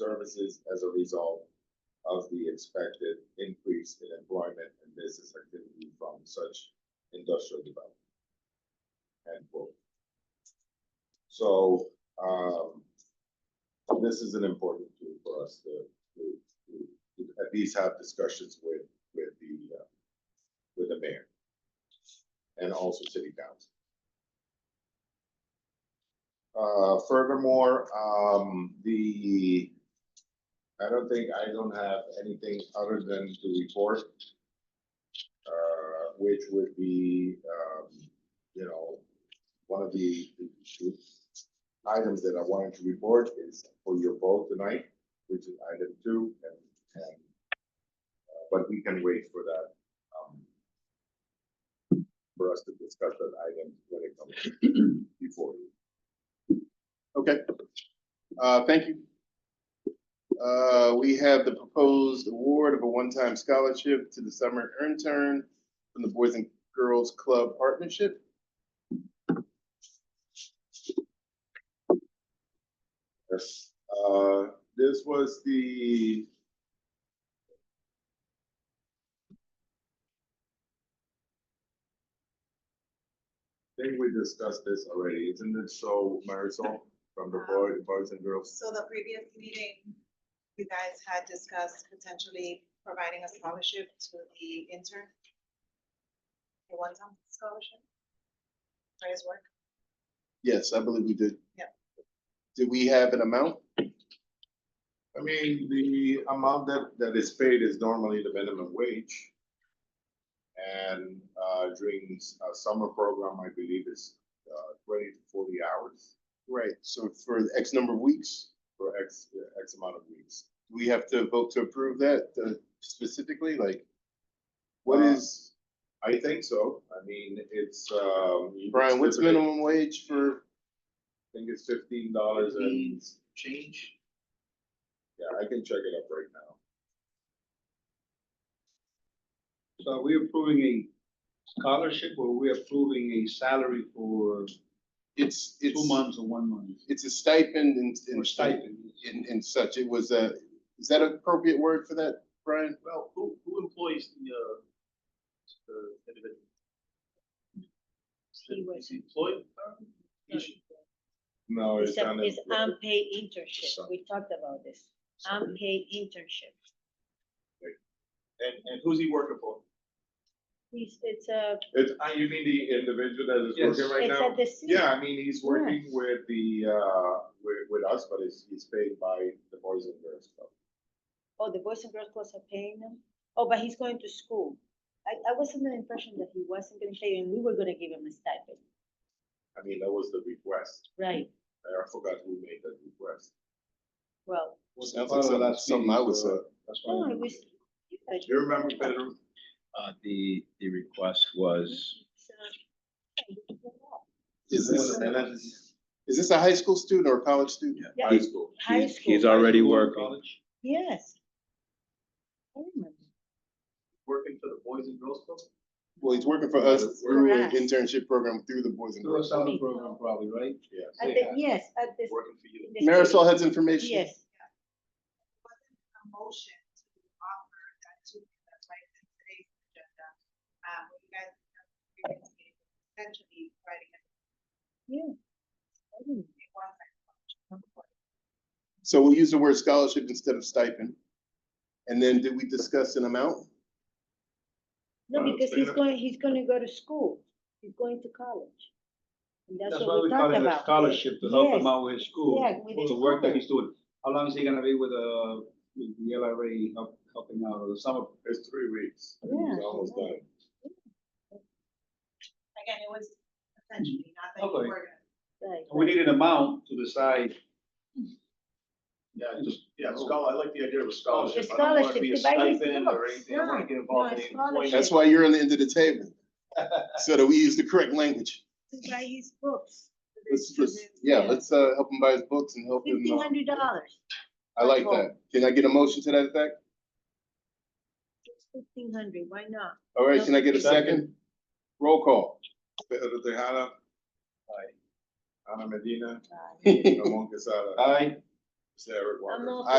services as a result of the expected increase in employment and business activity from such industrial development. End quote. So, um, this is an important tool for us to, to, to- to at least have discussions with, with the, uh, with the mayor and also city council. Uh, furthermore, um, the, I don't think, I don't have anything other than to report. Uh, which would be, um, you know, one of the, the items that I wanted to report is for your vote tonight, which is item two and, and. uh, But we can wait for that, um, for us to discuss that item when it comes before you. Okay. Uh, thank you. Uh, we have the proposed award of a one-time scholarship to the summer intern from the Boys and Girls Club Partnership. Yes, uh, this was the. I think we discussed this already, isn't it so, Marisol, from the boy, boys and girls? So the previous meeting, you guys had discussed potentially providing a scholarship to the intern. A one-time scholarship. For his work. Yes, I believe we did. Yep. Did we have an amount? I mean, the amount that, that is paid is normally the minimum wage. And, uh, during s- a summer program, I believe is, uh, twenty to forty hours Right, so for X number of weeks, for X, X amount of weeks. do we have to vote to approve that uh, specifically, like? What Uh, is, I think so. I mean, it's, um. you Brian, what's consider it- minimum wage for I think it's fifteen dollars and, change? yeah, I can check it up right now. So are we approving a scholarship or we approving a salary for It's, it's. two months or one month? it's a stipend and, Or and stipend? and, and such. It was a, is that an appropriate word for that, Brian? Well, who, who employs the, uh, the individual? He was- Employee? No, it's It's a- on. it's um, the- unpaid Some- internship. We talked about this. Unpaid internship. And, and who's he working for? It's, it's a, It's, uh, you mean the individual that is Yes. working right it's now? at the city. Yeah, I mean, he's working with the, uh, with, with us, but he's, he's paid by the Boys and Girls Club. Oh, the Boys and Girls Clubs are paying him? Oh, but he's going to school. I, I was under the impression that he wasn't gonna pay and we were gonna give him a stipend. I mean, that was the request. Right. I forgot who made that request. Well, Sounds like something, something I would say. uh, no, Oh, it was. yeah, Do you remember, Pedro? Uh, the, the request was, it's, uh, Is this, is this a high school student or a college student? Yeah, High school. high he's, he's school. already School, working. college? Yes. I remember. Working for the Boys and Girls Club? Well, he's working for us through an Correct. internship program through the Boys and Through a Girls. summer program probably, right? Yes. At the, yes, at this. Working for you? Marisol has information. Yes. Wasn't a motion to offer that to, that's why it's in today's agenda. Um, when you guys have the previous meeting, potentially writing a I remember. one-time scholarship. So we'll use the word scholarship instead of stipend. And then did we discuss an amount? No, Well, because so he's you're- going, he's gonna go to school, he's going to college. And that's That's why what we we talked call it a about. scholarship to help him Yes. out with his school. Yeah, with his The work that school. he's doing. How long is he gonna be with, uh, with the LRA help- helping out or the summer? It's three weeks. Yeah. He's almost done. Again, it was potentially, not that you Okay. were gonna. Right, We need an amount to decide. Yeah, just, yeah, scholar, I like the idea of a scholarship. It's I don't want it to be a scholarship, divide it stipend Or up. anything, I don't want No, to get no, involved in it's any employment. That's why you're on the end of the table. So that we use the correct language. to buy his books, Let's just, yeah, let's, uh, help him buy his books and help him. fifteen uh, hundred dollars, I like that. Can I get a motion to that effect? fifteen hundred, why not? All right, can I get a second? Roll call. Pedro Tejada. Ana Medina, Uh, Ramon Quesada, Aye. Sarah Walker. I'm all